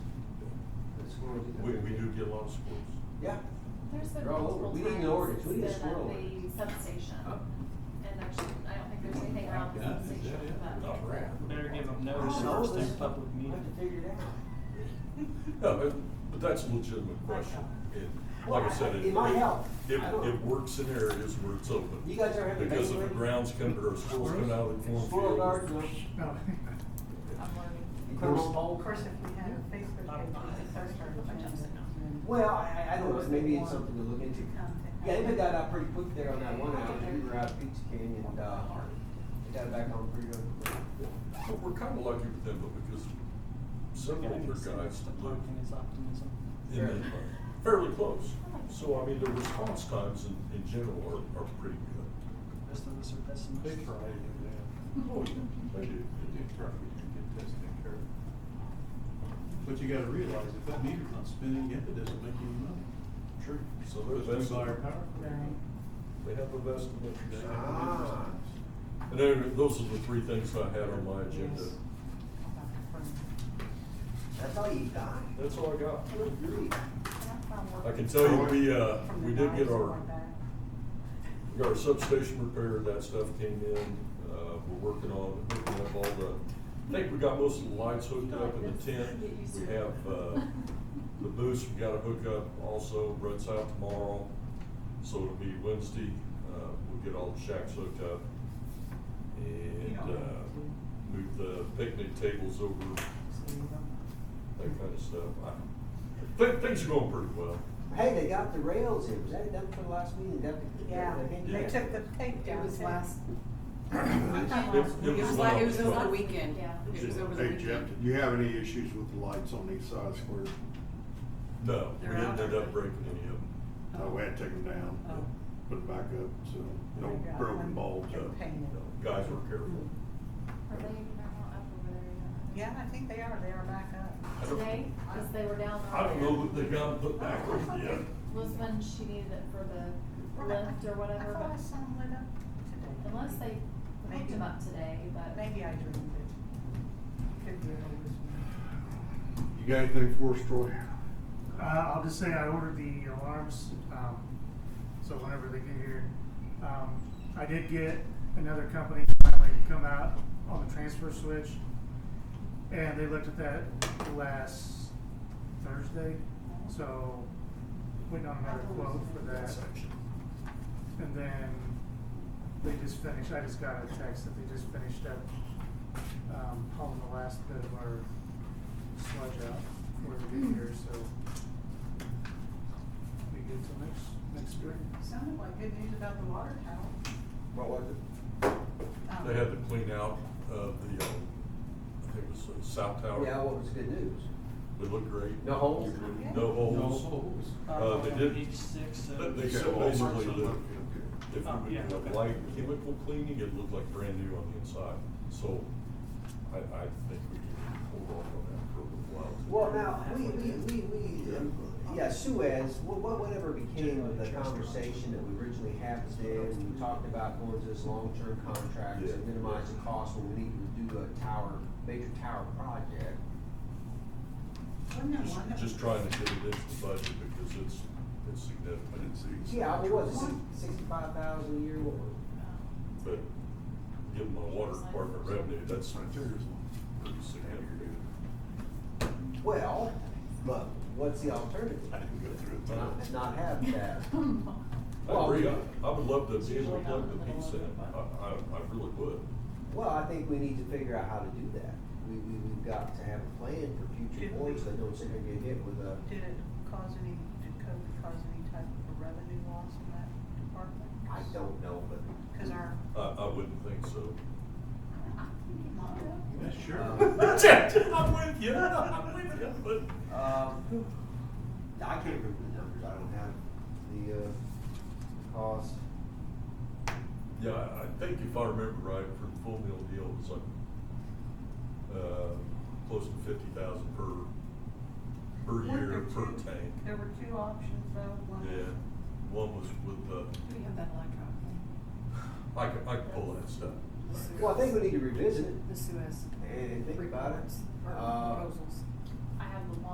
squirrels. you know, We, they're we big. do get a lot of squirrels. Yeah, There's been They're all over. multiple We need an times ordinance. We need a it's been squirrel at the substation, Huh? and there's, I don't think there's anything around the Yeah, is that substation, it? but. Oh, crap. Better give them I notice don't know, first this, through public we have meeting. to figure it out. No, but, but that's a legitimate question. And like I said, it. It might help. It, I don't- it works in areas where it's open. You guys ever have to Because if the evaluate? grounds come, or squirrels come out of the cornfield. Squirrel guards, you know, I'm learning. you put 'em on Of poles. course, if we had a Facebook page, we could post our agendas. Well, I, I- I don't know, maybe it's something to look into. Yeah, they put that out pretty quick there on that one out, we were out at Pizza King and, uh, they got it back on pretty good. But we're kinda lucky with them, but because several of their guys live Parking is optimism. in the, fairly close. So I mean, the response times in, in general are, are pretty good. Rest of us are pessimists. They try to do that. Oh, yeah, they do. They do try to get this taken care of. But you gotta realize, if that meter's not spinning, yet it doesn't make any money. True. So Because they're we vested, buy our power. they have a vested They interest. have an interest Ah. in us. And then, those are the three things I had on my agenda. That's all you got. That's all I got. I would agree. I can tell you, we, uh, we did get our, we got our substation repaired, that stuff came in, uh, we're working on hooking up all the, I think we got most of the lights hooked up in the tent. We have, uh, the boost, we gotta hook up also, runs out tomorrow, so it'll be Wednesday, uh, we'll get all the shacks hooked up. And, uh, move the picnic tables over, that kind of stuff. I, thi- things are going pretty well. Hey, they got the rails in, was that done for the last meeting? That- Yeah, that- that- they Yeah. took the tape down. It was too. last, It it was was like, last it was over the month. weekend. Yeah. It was over the Hey Jeff, weekend. did you have any issues with the lights on these side squares? No, we They're didn't out end there. up breaking any of them. No, we had to take them Oh. down, put them back up, so no We got broken one. bulbs. No, Painted. no, Guys were careful. Are they not up over there yet? Yeah, I think they are, they are back up. I don't- Today, cause they were down. I don't know earlier. that they got them put back over yet. Was when she needed it for the lift or I whatever, thought I but saw them lit up today. unless they hooked Maybe. them up today, but. Maybe I dreamed it. Could be an illusion. You got anything for us, Troy? Uh, I'll just say I ordered the alarms, um, so whenever they get here. Um, I did get another company finally to come out on the transfer switch, and they looked at that last Thursday, so waiting on another quote for that. And then they just finished, I just got a text that they just finished up, um, hauling the last bit of our sludge out for the new year, so. We get till next, next spring. Sounded like good news about the water tower. What was it? Um, They had to clean out, uh, the, uh, I think it was the south tower. Yeah, what was good news? They looked great. No holes? No No holes. holes. Uh, they did, Each six, uh, But they Okay, said all marks basically on the- them. Okay. if Oh, we yeah, would have okay. light chemical cleaning, it looked like brand new on the inside. So I, I think we can hold off on that for a little while. Well, now, we, we, we, we, um, yeah, Suez, wha- wha- whatever became of the conversation that we originally had with them, we talked about going to this long-term contract to Yeah. minimize the cost when we need to do a tower, major tower project. Wasn't there one that Just, was- just trying to get it into the budget because it's, it's significant. Yeah, I mean, what was it, sixty-five thousand a year, what was it? But given my water department revenue, that's Right there is one. pretty significant. Well, but what's the alternative? I didn't go through it. but I- Not, not have that. I agree, I, I would love to be able to plug the piece in, I, I, I really would. Well, I think we need to figure out how to do that. We, we, we've got to have a plan for future Did boards we- that don't sit there and get hit with a, Did it cause any, did COVID cause any type of a revenue loss in that department? I don't know, but Cause our. I, I wouldn't think so. Yeah, Uh, sure. I'm with you, I'm with you, but. Um, I can't remember the numbers, I don't have the, uh, cost. Yeah, I, I think if I remember right, for the full meal deal, it was like, uh, close to fifty thousand per, per Weren't there year, per two- tank. There were two options though, one. Yeah, one was with the, Do we have that electronic? I can, I can pull that stuff. Well, I think we need to revisit it The Suez. and think about it. reports or Uh, proposals.